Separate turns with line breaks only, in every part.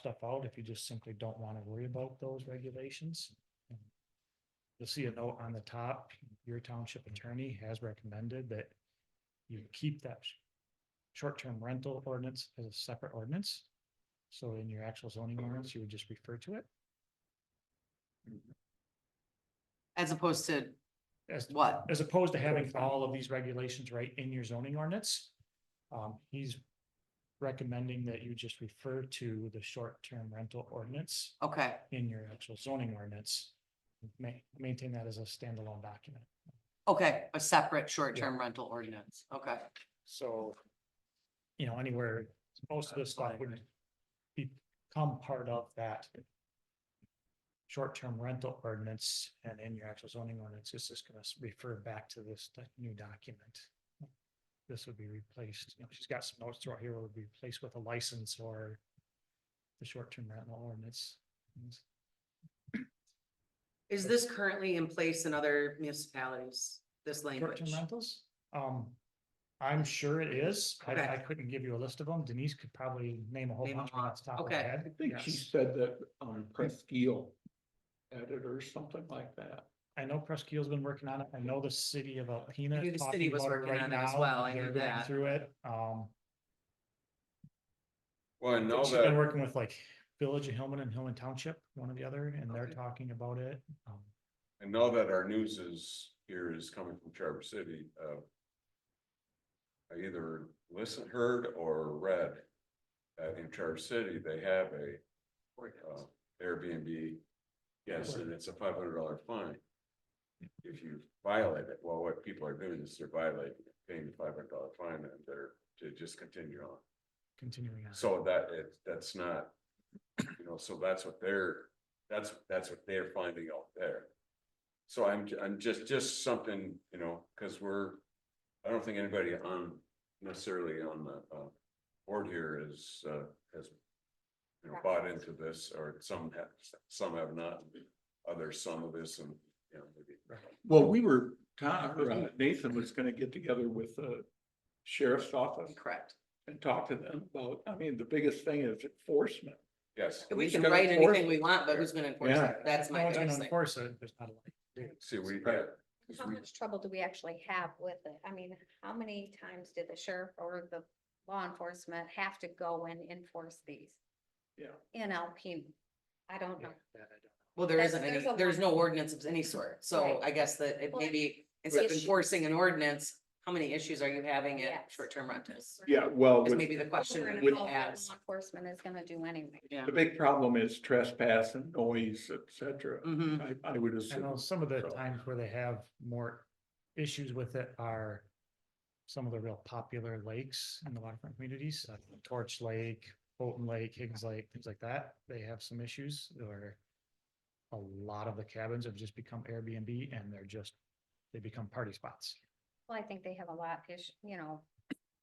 stuff out if you just simply don't want to worry about those regulations. You'll see a note on the top, your township attorney has recommended that you keep that sh- short-term rental ordinance as a separate ordinance. So in your actual zoning ordinance, you would just refer to it
As opposed to
as
what?
as opposed to having all of these regulations right in your zoning ordinance. Um, he's recommending that you just refer to the short-term rental ordinance
Okay,
in your actual zoning ordinance. Ma- maintain that as a standalone document.
okay, a separate short-term rental ordinance, okay.
So, you know, anywhere, most of this stuff would become part of that short-term rental ordinance and in your actual zoning ordinance, it's just gonna s- refer back to this d- new document. This would be replaced, you know, she's got some notes throughout here, would be replaced with a license or the short-term rental ordinance.
Is this currently in place in other municipalities, this language?
Short-term rentals, um, I'm sure it is. I,
Okay.
I couldn't give you a list of them. Denise could probably name a whole
Name a
bunch right off the top of her
Okay.
head.
I think she
Yes.
said that um Presqu'île added or something like that.
I know Presqu'île's been working on it. I know the city of Alpena.
I knew
is
the
talking
city was
about it
working
right
on it as
now.
well. I
They're
knew
going
that.
Through it, um,
Well, I know
she's been
that,
working with like Village of Hillman and Hillman Township, one or the other, and they're
Okay.
talking about it. Um,
I know that our news is, here is coming from Traverse City, uh. I either listened, heard or read, that in Traverse City, they have a, uh, Airbnb. Yes, and it's a five hundred dollar fine. If you violate it, well, what people are doing is they're violating, it, paying the five hundred dollar fine and they're to just continue on.
continuing on.
So that it, that's not, you know, so that's what they're, that's, that's what they're finding out there. So I'm, ju- I'm just, just something, you know, cause we're, I don't think anybody on necessarily on the, uh, board here is, uh, has. You know, bought into this or some have, some have not, others some of this and, you know, maybe.
Well, we were, Tom, or, uh, Nathan was gonna get together with the sheriff's office
Correct.
and talk to them about, I mean, the biggest thing is enforcement.
Yes,
We
Who's
can
gonna
write
enforce
anything
it?
we want, but who's gonna enforce
Yeah.
it? That's
If
my
No one's gonna
biggest thing.
enforce it. There's not a lot. to do.
see, we had,
How much trouble do we actually have with it? I mean, how many times did the sheriff or the law enforcement have to go and enforce these?
Yeah.
In Alpena? I don't know.
Yeah, that I don't-
Well, there
That's-
isn't, any-
there's a
there's
lot.
no ordinance of any sort, so
Right.
I guess that it
Well,
maybe, instead of
issue-
enforcing an ordinance, how many issues are you having at
Yes.
short-term rentals?
Yeah, well,
Is
with-
maybe the question
Over and
that
would
we
above what
ask,
Law enforcement is gonna do anyway.
yeah.
the big problem is trespass and noise, et cetera.
hmm
I, I would
I know
assume.
some of the
so.
times where they have more issues with it are some of the real popular lakes in the waterfront communities, like Torch Lake, Bolton Lake, Higgins Lake, things like that. They have some issues or a lot of the cabins have just become Airbnb and they're just, they become party spots.
Well, I think they have a lot issue, you know,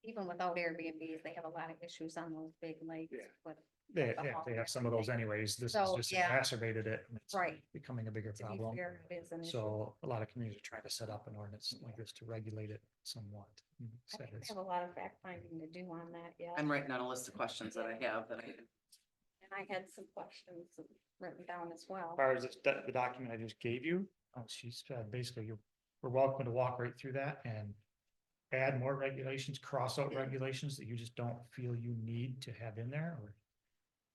even without Airbnbs, they have a lot of issues on those big lakes.
Yeah.
with-
They, they- they have some of those anyways. This has
So,
just
yeah.
exacerbated it. and it's
Right.
Becoming a bigger
To be
problem.
fair, it is an issue.
So a lot of communities are trying to set up an ordinance like this to regulate it somewhat. Mm-hmm.
I think
It's-
they have a lot of fact finding to do on that yet.
I'm writing down a list of questions that I have that I
And I had some questions written down as well.
far as this- that- the document I just gave you, uh, she said basically you're, we're welcome to walk right through that and add more regulations, cross out regulations that you just don't feel you need to have in there or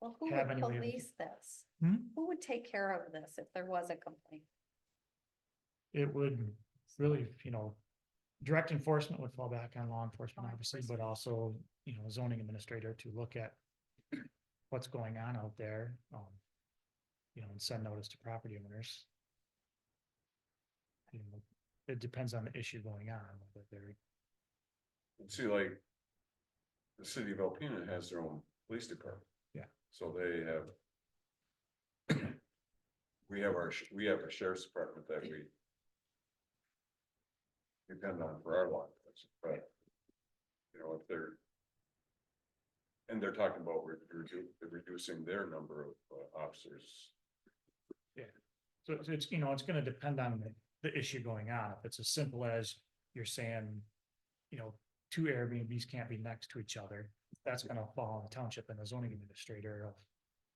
Well, who
have
would
any way of-
police this?
Hmm?
Who would take care of this if there was a complaint?
it would really, you know, direct enforcement would fall back on law enforcement,
Law
obviously, but
enforcement.
also, you know, zoning administrator to look at what's going on out there, um, you know, and send notice to property owners. You know, It depends on the issue going on, whether they're
see, like, the city of Alpena has their own police department.
Yeah.
So they have. We have our, sh- we have a sheriff's department that we. Depend on for our law, enforcement, but. You know, if they're. And they're talking about re- redu- reducing their number of uh, officers.
So it's- it's, you know, it's gonna depend on the, the issue going on. If it's as simple as you're saying, you know, two Airbnbs can't be next to each other, that's gonna fall on the township and the zoning administrator of